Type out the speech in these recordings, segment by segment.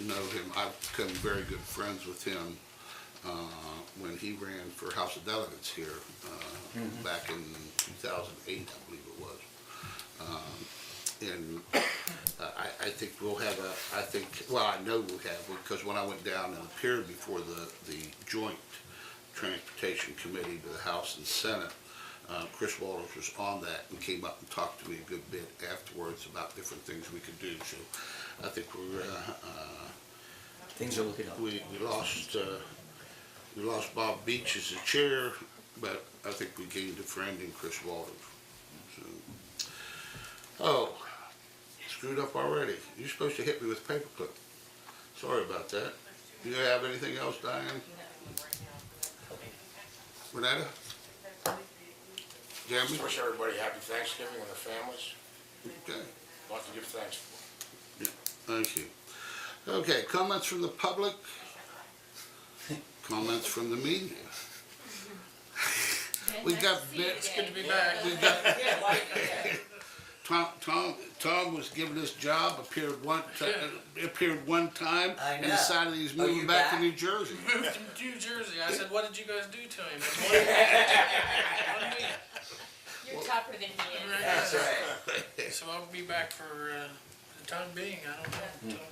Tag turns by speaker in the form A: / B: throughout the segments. A: know him, I've become very good friends with him uh, when he ran for House of Delegates here uh, back in 2008, I believe it was. Um, And uh, I, I think we'll have a, I think, well, I know we'll have, because when I went down and appeared before the, the joint Transportation Committee to the House and Senate, uh, Chris Walters was on that and came up and talked to me a good bit afterwards about different things we could do. So I think we're, uh, uh,
B: Things are looking up.
A: we, we lost, uh, we lost Bob Beach as the chair, but I think we gained a friend in Chris Walters. So, Oh, screwed up already. You're supposed to hit me with a paperclip. Sorry about that. Do you have anything else, Diane? Renata? Jeremy?
C: Wish everybody happy Thanksgiving and their families.
A: Okay.
C: Lot to give thanks for.
A: Thank you. Okay, comments from the public? Comments from the media? We got bits.
D: Good to be
A: back. We got, Tom, Tom, Tom was given his job, appeared one, ti- appeared one time,
B: I
A: and
B: know.
A: decided he's
B: Are you
A: moving back to
B: back?
A: New Jersey.
E: moved to New Jersey. I said, "What did you guys do to him?" One week.
D: You're tougher than he is.
B: That's right.
E: So I'll be back for uh, the time being. I
B: Hmm.
E: don't know.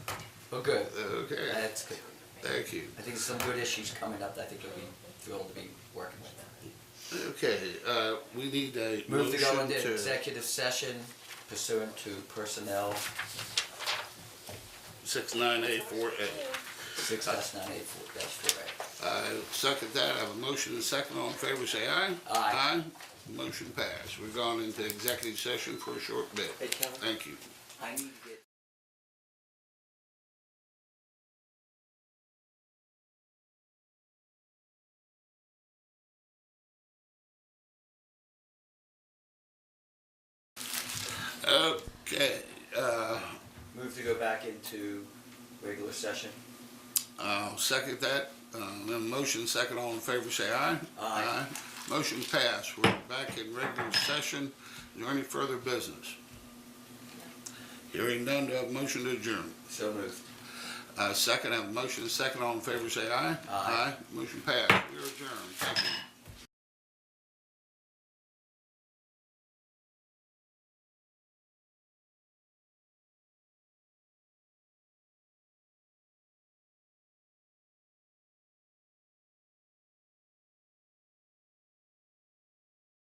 B: Well, good.
A: Okay,
B: That's good.
A: thank you.
B: I think some good issues coming up that I think you'll be thrilled to be working with.
A: Okay, uh, we need a
B: Move to go
A: motion
B: into
A: to-
B: executive session pursuant to personnel
A: Six nine eight four eight.
B: six dash nine eight four dash four A.
A: I second that, I have a motion and a second, all in favor, say aye.
B: Aye.
A: Aye, motion passed. We've gone into executive session for a short bit. Thank you.
B: I need to get.
A: Okay, uh,
B: Move to go back into regular session.
A: I'll second that, uh, then motion, second, all in favor, say aye.
B: Aye.
A: Motion passed, we're back in regular session, is there any further business? Hearing none, do I have a motion to adjourn?
B: So moved.
A: Uh, second, I have a motion, and a second, all in favor, say aye.
B: Aye.
A: Motion passed, we are adjourned, thank you.